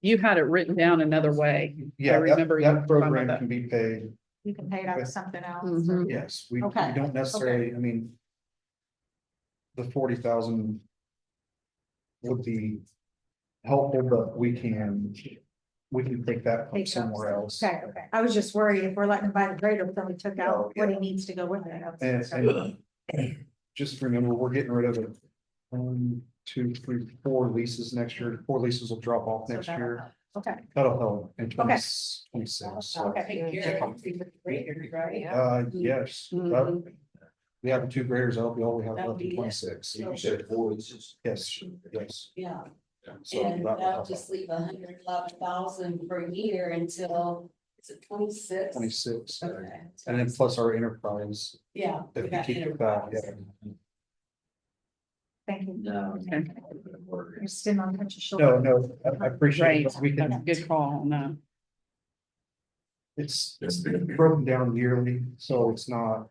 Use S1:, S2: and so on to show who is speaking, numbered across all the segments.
S1: You had it written down another way.
S2: Yeah, that,
S1: remember you
S2: that
S1: talking about
S2: program
S1: that.
S2: can be paid,
S3: You can pay it out of something else.
S1: Mhm.
S2: yes, we, we
S3: Okay,
S2: don't necessarily, I mean. The forty thousand. Would be helpful, but we can, we can take that from
S3: Take out
S2: somewhere else.
S3: Okay, okay. I was just worried if we're letting him buy the grader, but then we took
S2: Oh,
S3: out what he
S2: yeah.
S3: needs to go with it. I was
S2: And,
S3: concerned.
S2: and just remember, we're getting rid of it. One, two, three, four leases next year, four leases will drop off
S3: So
S2: next
S3: that'll
S2: year,
S3: help. Okay.
S2: that'll help in
S3: Okay.
S2: 26, so.
S3: Okay.
S2: Uh,
S4: Mm-hmm.
S2: yes, that-
S1: Mhm.
S2: we have two graders, that'll be all we have
S4: That'll
S2: left in
S4: Mm-hmm. be it.
S2: twenty-six.
S4: You
S2: said four leases? Yes, yes.
S4: Yeah,
S2: So that will
S4: and that'll
S2: help.
S4: just leave a hundred eleven thousand per year until, is it twenty-six?
S2: Twenty-six, uh, and
S4: Okay.
S2: then plus our enterprise,
S4: Yeah. we
S2: if we
S4: got
S2: keep it back,
S4: enterprise.
S2: yeah.
S3: Thank you.
S4: No.
S1: Okay.
S3: You're sitting on Hunter's
S2: No,
S3: shoulder.
S2: no, I- I appreciate
S1: Right.
S2: it, but we
S1: That's a
S2: can,
S1: good call, no.
S2: it's broken down yearly, so it's not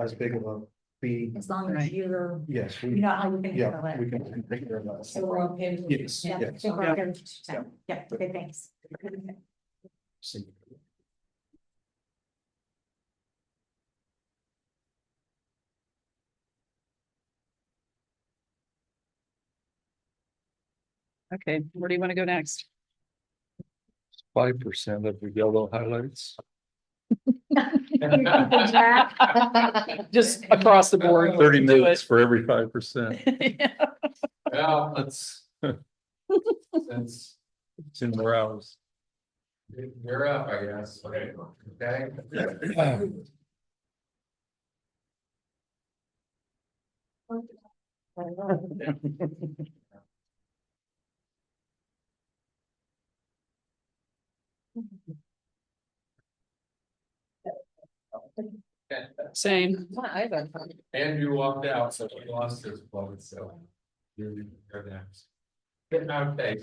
S2: as big of a fee.
S3: As long as
S1: Right.
S3: you're,
S2: Yes,
S3: you
S2: we,
S3: know how you can handle
S2: yeah,
S3: it.
S2: we can take care of that.
S4: So we're okay. with-
S2: Yes,
S3: Yeah, I
S2: yes.
S3: think we're
S1: Yeah.
S3: okay with what you're saying. Yeah, okay, thanks.
S2: See.
S1: Okay, where do you want to go next?
S5: five percent of the yellow highlights.
S1: Just across the board.
S5: Thirty
S1: do it.
S5: minutes for every five percent.
S6: Yeah, that's. Since
S5: It's in more hours.
S6: you're up, I guess. Okay.
S1: Same.
S6: Andrew walked out, so he lost his vote, so. You're you're next. Okay.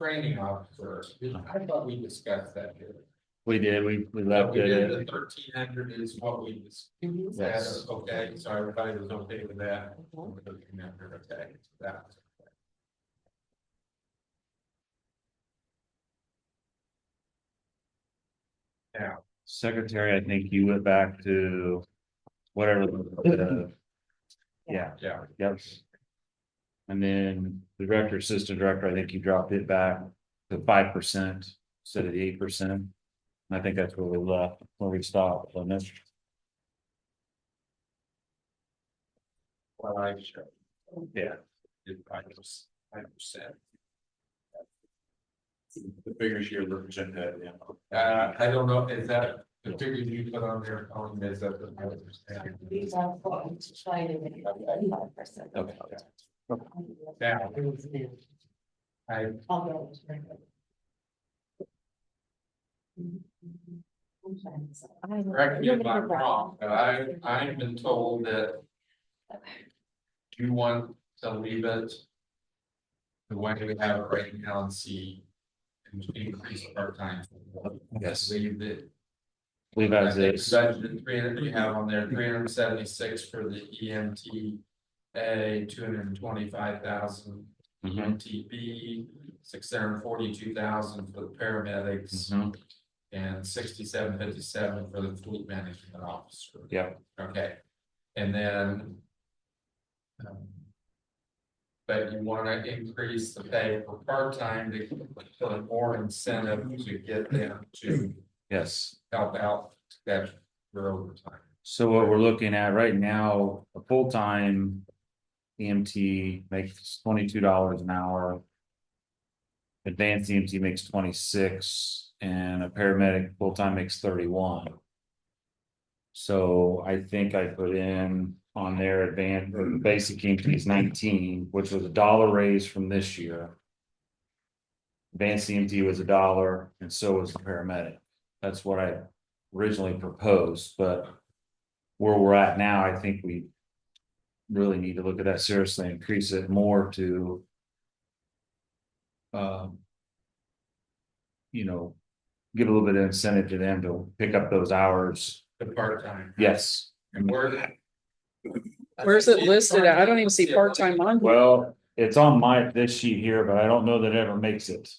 S6: Training officer, I thought we discussed that here.
S7: We did, we, we
S6: We
S7: left
S6: did
S7: it.
S6: the thirteen hundred is what we discussed.
S7: Yes.
S6: Yes, okay, so everybody was okay with that. Okay, that was okay.
S7: Secretary, I think you went back to whatever. uh, the- Yeah,
S6: Yeah,
S7: yes. And then the director, assistant director, I think you dropped it back to five percent instead of the eight percent. And I think that's where we left, where we stopped, on this.
S6: well, I should.
S7: Yeah.
S6: Did five percent, five percent.
S7: The figures you're representing that, yeah.
S6: Uh, I don't know, is that the figure you put on there, on this, that the five percent?
S4: These are what we try to make thirty-five percent.
S7: Okay.
S6: Now. I,
S4: Although- Mm-hmm. I'm sorry, so I-
S6: correct me if I'm wrong, but I, I've been told that you want to leave it. The way we have it right now and see. and Increase our time.
S7: Yes.
S6: Leave it.
S7: Leave
S6: I
S7: as
S6: think
S7: is.
S6: Budget three hundred, you have on there, three hundred and seventy-six for the EMT. A, two hundred and twenty-five thousand, E
S7: Mhm,
S6: EMTB, six hundred and forty-two thousand for the paramedics.
S7: mhm.
S6: And sixty-seven fifty-seven for the fleet management officer.
S7: Yeah.
S6: Okay, and then. um, But you wanna increase the pay for part-time to put more incentive to get them to
S7: Yes.
S6: help out that for overtime.
S7: So what we're looking at right now, a full-time EMT makes twenty-two dollars an hour. Advanced EMT makes twenty-six and a paramedic full-time makes thirty-one. So I think I put in on their advanced, or the basic EMT is nineteen, which was a dollar raise from this year. Advanced EMT was a dollar and so was the paramedic. That's what I originally proposed, but where we're at now, I think we really need to look at that seriously, increase it more to um, you know, give a little bit of incentive to them to pick up those hours.
S6: The part-time.
S7: Yes.
S6: And where.
S1: Where's it listed at? I don't even see part-time on. here.
S7: Well, it's on my, this sheet here, but I don't know that it ever makes it.